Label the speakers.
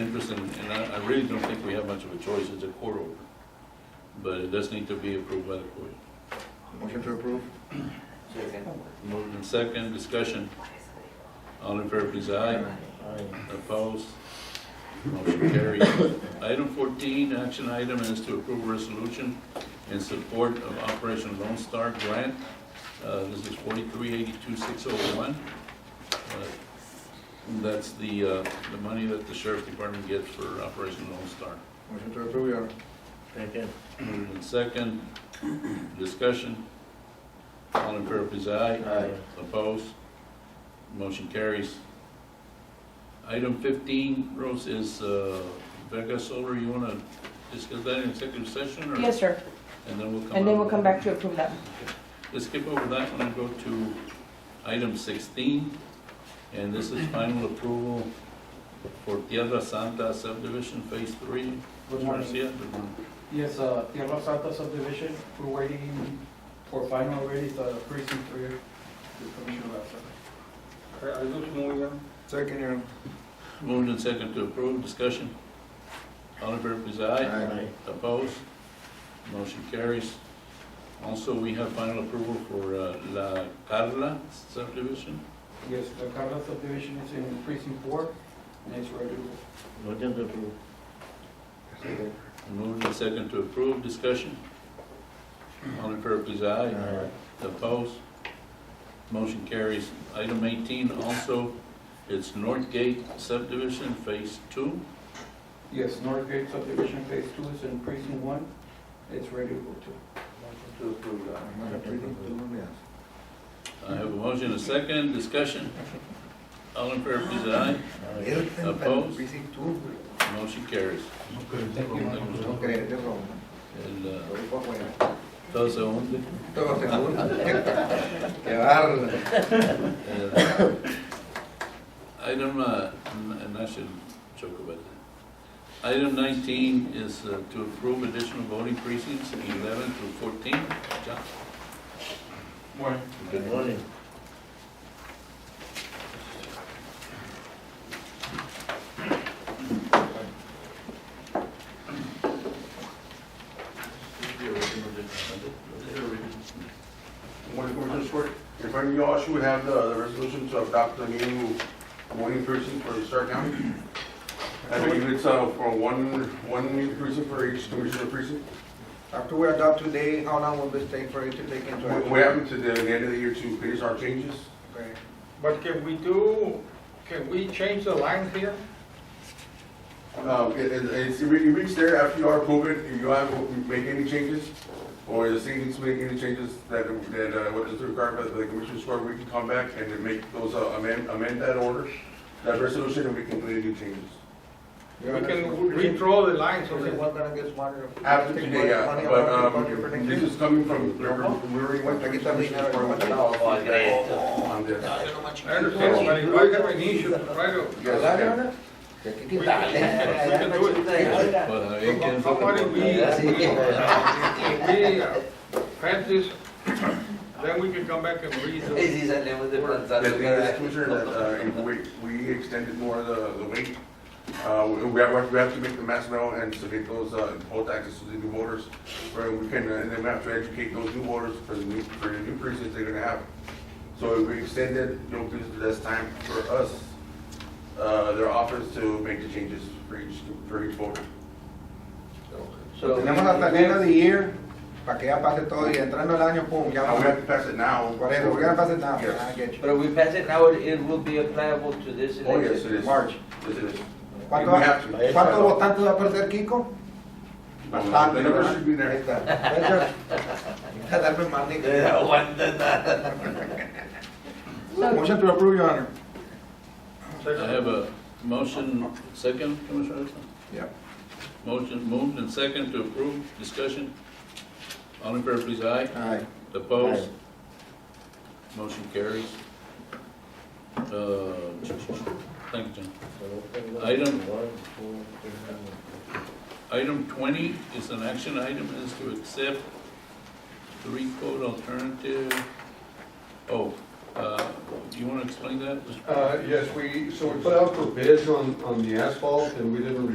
Speaker 1: orders, and, and I, I really don't think we have much of a choice, it's a court order. But it does need to be approved by the court.
Speaker 2: Motion to approve?
Speaker 3: Second.
Speaker 1: Moved in second, discussion. All in favor, please, aye. Opposed? Motion carried. Item fourteen, action item is to approve resolution in support of Operation Lone Star Grant. Uh, this is forty-three eighty-two six oh one. Uh, That's the, uh, the money that the sheriff's department gets for Operation Lone Star.
Speaker 2: Motion to approve, Your Honor.
Speaker 4: Second.
Speaker 1: Moved in second, discussion. All in favor, please, aye.
Speaker 4: Aye.
Speaker 1: Opposed? Motion carries. Item fifteen, Rose, is uh, Vega Solar, you want to discuss that in executive session? or-
Speaker 5: Yes, sir,
Speaker 1: And then we'll come.
Speaker 5: and then
Speaker 1: out.
Speaker 5: we'll come back to approve that.
Speaker 1: Let's skip over that one and go to item sixteen. And this is final approval for Tierra Santa subdivision, phase three.
Speaker 6: Good morning.
Speaker 1: Garcia, good morning.
Speaker 6: Yes, uh, Tierra Santa subdivision, we're waiting for final already, the precinct three, the commission will
Speaker 4: Are you moving on?
Speaker 2: Second, Your Honor.
Speaker 1: Moved and second to approve, discussion. All in favor, please, aye.
Speaker 2: Aye.
Speaker 1: Opposed? Motion carries. Also, we have final approval for uh, La Carla subdivision.
Speaker 6: Yes, the Carla subdivision is in precinct four, and it's ready.
Speaker 4: Motion to approve.
Speaker 2: Second.
Speaker 1: Moved and second to approve, discussion. All in favor, please, aye. Opposed? Motion carries. Item eighteen, also, it's Northgate subdivision, phase two.
Speaker 6: Yes, Northgate subdivision phase two is in precinct one, it's ready to go to.
Speaker 4: Motion to approve, Your Honor.
Speaker 2: Motion to approve, yes.
Speaker 1: I have a motion, a second, discussion. All in favor, please, aye.
Speaker 2: Middleton,
Speaker 1: Opposed?
Speaker 2: Precinct two.
Speaker 1: Motion carries.
Speaker 2: Okay, de broma.
Speaker 1: El, uh,
Speaker 2: Lo dijo afuera.
Speaker 1: Todo se hunde.
Speaker 2: Todo se junta. Qué bárbaro.
Speaker 1: Uh, Item, uh, n- and I shouldn't joke about that. Item nineteen is uh, to approve additional voting precincts, eleven through fourteen. John?
Speaker 6: Morning.
Speaker 4: Good morning.
Speaker 7: Morning, Commissioner Court. In front of you all, should we have the, the resolution to adopt the new voting precinct for Stark County? I believe it's, uh, for one, one new precinct for each commissioner precinct.
Speaker 2: After we adopt today, how long will this take for it to take into
Speaker 7: We,
Speaker 2: action?
Speaker 7: we have until the end of the year to finish our changes.
Speaker 2: Okay.
Speaker 8: But can we do, can we change the line here?
Speaker 7: Um, it, it- it's, it re- it reached there after you are approved, it, if you have, make any changes, or the city needs to make any changes that, that, uh, what is required by the commissioner's court, we can come back and then make those, uh, amend, amend that order, that resolution, and we can make any changes.
Speaker 2: Your
Speaker 8: We
Speaker 2: Honor,
Speaker 8: can
Speaker 2: Precinct-
Speaker 8: redraw the line so
Speaker 2: Precinct
Speaker 8: that,
Speaker 2: one gonna get smarter.
Speaker 7: After
Speaker 2: Take
Speaker 7: today, yeah,
Speaker 2: money out
Speaker 7: but,
Speaker 2: of the budget for
Speaker 7: um,
Speaker 2: next
Speaker 7: this
Speaker 2: year.
Speaker 7: is coming from, remember, we already went to the commissioner's
Speaker 2: uh,
Speaker 7: court with all feedback on this.
Speaker 8: I understand, but if I have an issue, try to,
Speaker 2: ¿Verdad, Your
Speaker 7: Yes,
Speaker 2: Honor? Que aquí te-
Speaker 8: We-
Speaker 2: Dale.
Speaker 8: we can do it.
Speaker 1: Well, I can't-
Speaker 8: How about if we, we uh, pass this, then we can come back and read the,
Speaker 3: Ese salió
Speaker 7: the
Speaker 3: de Gonzalo,
Speaker 7: thing is,
Speaker 3: ¿verdad?
Speaker 7: Commissioner, that, uh, if we, we extended more the, the wait, uh, we we have, we have to make the mass mail and submit those, uh, poll taxes to the new voters, where we can, uh, and then we have to educate those new voters for the new, for the new precincts they're gonna have. So if we extend it, you know, gives less time for us, uh, their office to make the changes for each, for each voter.
Speaker 4: So.
Speaker 2: Tenemos hasta el end of the year para que ya pase todo y entrando el año, pum, ya
Speaker 7: Now,
Speaker 2: vamos
Speaker 7: we
Speaker 2: a
Speaker 7: have to pass it now.
Speaker 2: Por eso, we're gonna pass it now.
Speaker 7: Yes.
Speaker 2: I Ah, get you.
Speaker 3: But if we pass it now, it will be applicable to this
Speaker 7: Oh, yes, it
Speaker 3: election.
Speaker 7: is.
Speaker 2: March.
Speaker 7: Yes, it is. We
Speaker 2: ¿Cuánto-
Speaker 7: have to.
Speaker 2: ¿Cuántos votantes va a perder Kiko?
Speaker 7: The numbers should be
Speaker 2: Ahí
Speaker 7: there.
Speaker 2: está. Gracias. Deja de darme mal, nigga.
Speaker 3: Aguanta nada.
Speaker 5: So,
Speaker 2: Motion to approve, Your Honor.
Speaker 1: I have a motion, second, Commissioner Edson?
Speaker 2: Yeah.
Speaker 1: Motion moved and second to approve, discussion. All in favor, please, aye.
Speaker 2: Aye.
Speaker 1: Opposed? Motion carries. Uh, Thank you, John. Item-
Speaker 4: One, two, three,
Speaker 1: Item twenty is an action item, is to accept the recode alternative. Oh, uh, do
Speaker 7: Uh,
Speaker 1: you want to explain that, Mr.
Speaker 9: Uh, yes, we, so we put out for bids on, on the asphalt, and we didn't